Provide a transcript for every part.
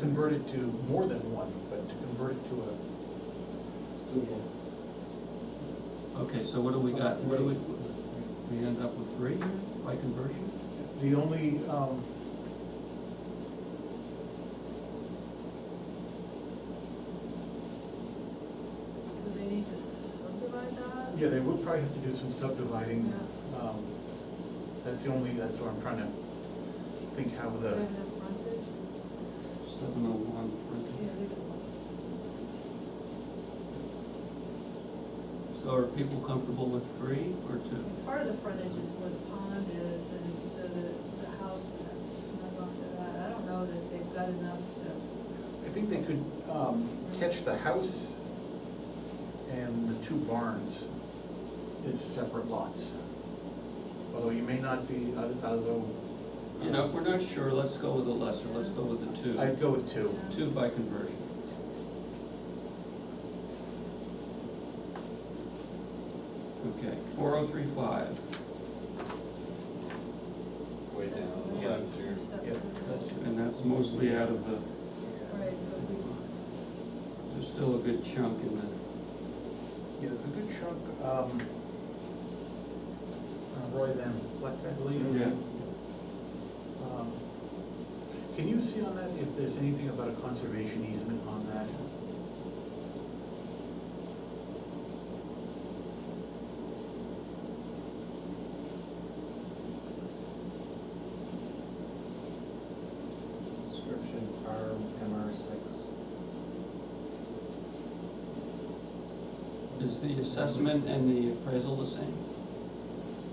convert it to more than one, but to convert it to a, Okay, so what do we got, what do we, we end up with three here by conversion? the only, um, So they need to subdivide that? yeah, they would probably have to do some subdividing. Yeah. Um, That's the only, that's what I'm trying to think how They the, have frontage? Seven oh one Yeah, frontage. they do. So are people comfortable with three or two? Part of the frontage is where the pond is, and so the, the house would have to snug onto that. I don't know that they've got enough to, I think they could um, catch the house and the two barns as separate lots. Although you may not be, although. You know, if we're not sure, let's go with the lesser, let's go with the two. I'd go with two. Two by conversion. Okay, four oh three five. Way That's down, what yeah, I'm to your- stuck yeah, with. that's- And that's mostly out of the, Right, so if we, there's still a good chunk in the, Yeah, there's a good chunk, um, uh, Roy Van Fleck, I believe. yeah. Um, Can you see on that if there's anything about a conservation easement on that? Description, farm, MR six. Is the assessment and the appraisal the same?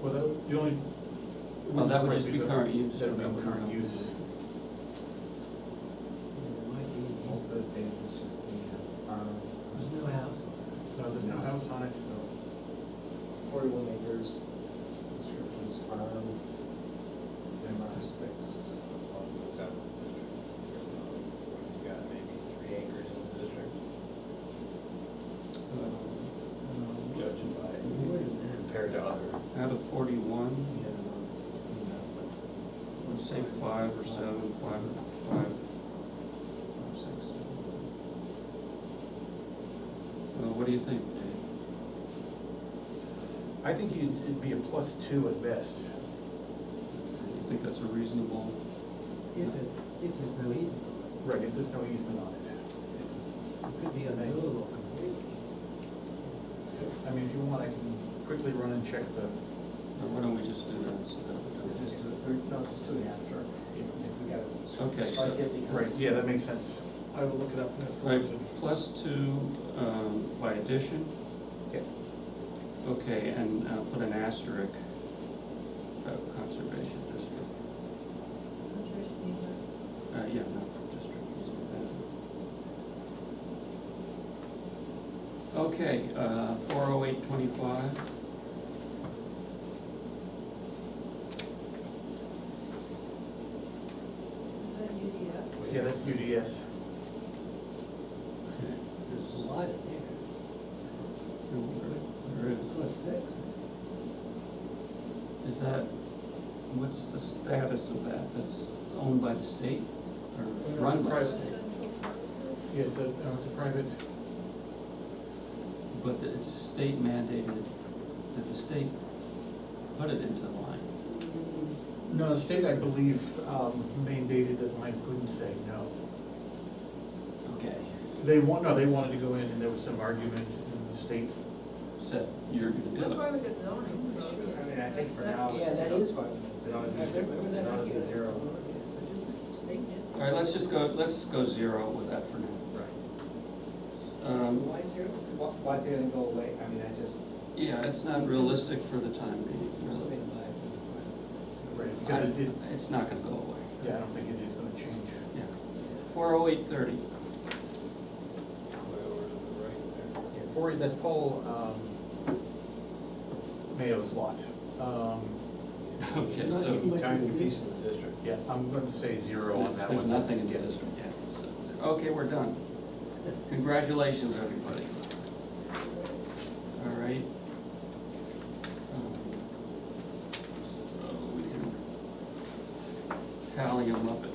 Well, that- the only. Well, that would just be current use. That would be current use. It might be, holds those days, it's just the uh, farm. There's no house on No, there's no house on it. It's Forty-one acres, description's farm, MR six. It's out of the district. What, you got maybe three acres in the district, Uh, it. judging by, Wait a minute. compared to other. Out of forty-one, Yeah. no, let's say five or seven, five, five, five, six. Uh, what do you think, Dave? I think you'd- it'd be a plus two at best. You think that's a reasonable, If it's, if there's no easement, Right, if there's no easement on it. it could be unbuildable completely. I mean, if you want, I can quickly run and check the, or why don't we just do that instead? but Just, do- or no, just do the after, if if we got it. Okay, so- Like it right, becomes- yeah, that makes sense. I will look it up. Right, plus two, um, by addition, Yeah. okay, and, uh, put an asterisk, uh, conservation district. conservation easement. Uh, yeah, not from district easement. uh. Okay, uh, four oh eight twenty-five. Is that UDS? Yeah, that's UDS. There's a lot in there. There There's plus six. is. Is that, what's the status of that? That's owned by the state or it's run by the private. state? Essential services? Yeah, it's a, uh, it's a private, But the- it's state mandated, that the state put it into the line. no, the state, I believe, um, mandated that Mike couldn't say no. Okay. They want, no, they wanted to go in and there was some argument in the state. So you're gonna do That's it. why we got zoning, folks. I mean, I think for That- now. Yeah, that is why. It ought to be- it ought to be zero. All right, let's just go, let's go zero with that for now. Right. Um, Why zero? Why, why's it gonna go away? I mean, I just, Yeah, it's not realistic for the time being, really. Right. Because it did, I- It's not gonna go away. yeah, I don't think it is gonna change. Yeah. Four oh eight thirty, Way over to the right there. Yeah, Four, that's Paul, um, Mayo's lot. Um, okay, Not too so much. Tiny piece of the district. yeah, I'm gonna say zero on there's that there's one. nothing in the Yeah. district yet. so- Okay, we're done. Congratulations, everybody. All right. Um, So we can tally them up at